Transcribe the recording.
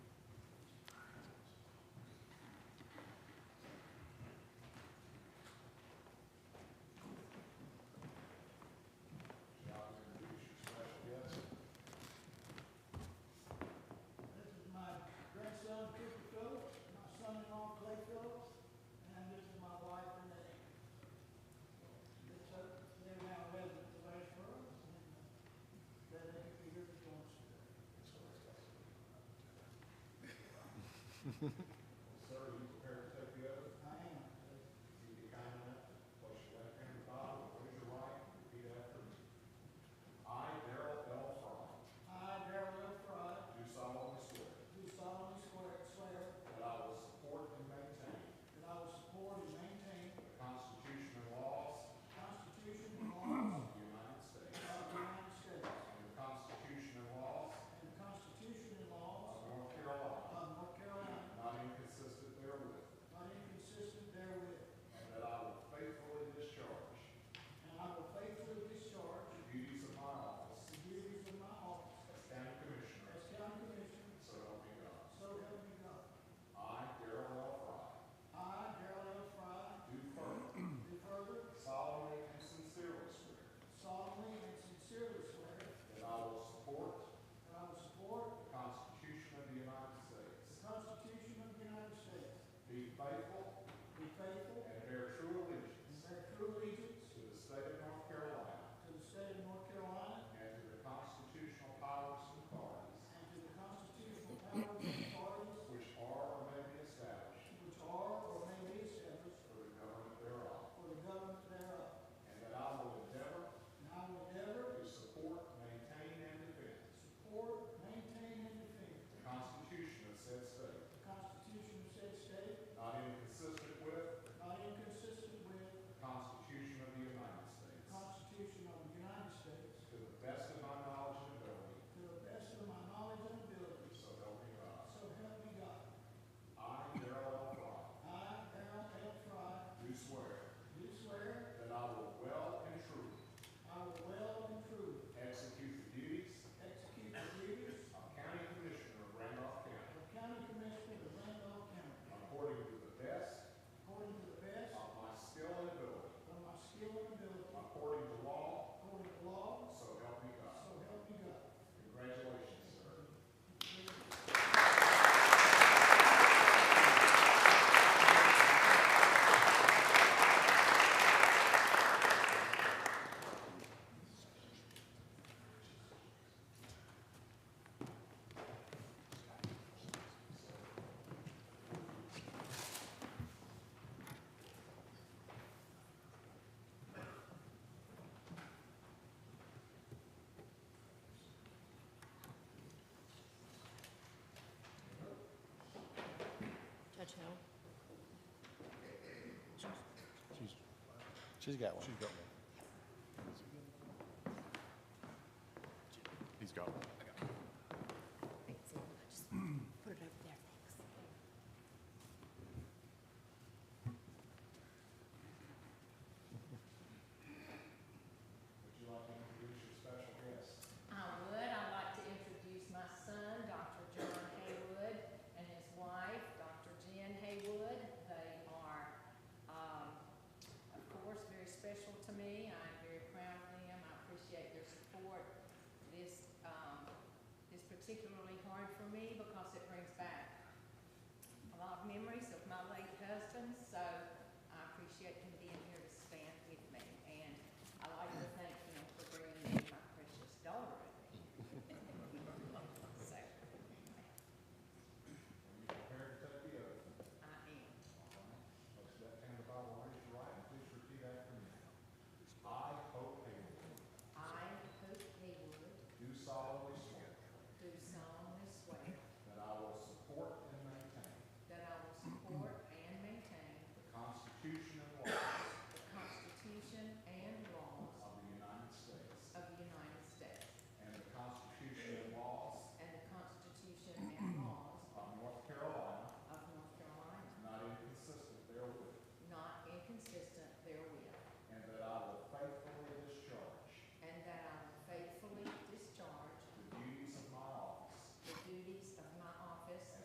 Sir, are you prepared to take the oath? I am. If you be kind enough, to place your left hand on the Bible, raise your right, and repeat after me. I, Darrell L. Fry, I, Darrell L. Frye, do solemnly swear do solemnly swear swear that I will support and maintain that I will support and maintain the Constitution and laws the Constitution and laws of the United States of the United States and the Constitution and laws and the Constitution and of laws North Carolina, of North Carolina, not inconsistent therewith, not inconsistent therewith, and that I will faithfully discharge and I will faithfully discharge the duties of my office the duties of my office as county commissioner, as county commissioner, so help me God. so help me God. I, Darrell L. Fry, I, Darrell L. Frye, do further do further solemnly and sincerely swear solemnly and sincerely swear that I will support that I will support the Constitution of the United States, the Constitution of the United States, be faithful be faithful and bear true and allegiance bear true allegiance to the state of North Carolina To the state of North Carolina and to the constitutional powers and authorities and to the constitutional powers and authorities which are or may be established which are or may be established for the government thereof, for the government thereof. and that I will endeavor And I will endeavor to support, maintain, and defend to support, maintain, and defend the Constitution of said state, the Constitution of said state, not inconsistent with not inconsistent with the Constitution of the United the States, Constitution of the United States, To the best of my knowledge and ability, to the best of my knowledge and ability. so help me God. So help me God. I, Darrell L. Fry, I, Darrell L. Frye, do swear do swear that I will well and truly I will well and truly execute the duties execute the duties of County Commissioner of Randolph County of County Commissioner of Randolph County according to the best According to the best of my skill and ability, of my skill and ability, according to law, according to law, so help me so God. help me God. Congratulations, sir. Judge Hill? She's, she's got one. She's got one. He's got one. Wait, see, just put it over there, thanks. Would you like to introduce your special guest? I Um, would, I'd like to introduce my son, Dr. John Haywood, and his wife, Dr. Jen Haywood. They are, um, of course, very special to me. I'm very proud of them. I appreciate their support. This, um, is particularly hard for me because it brings back a lot of memories of my late husband, so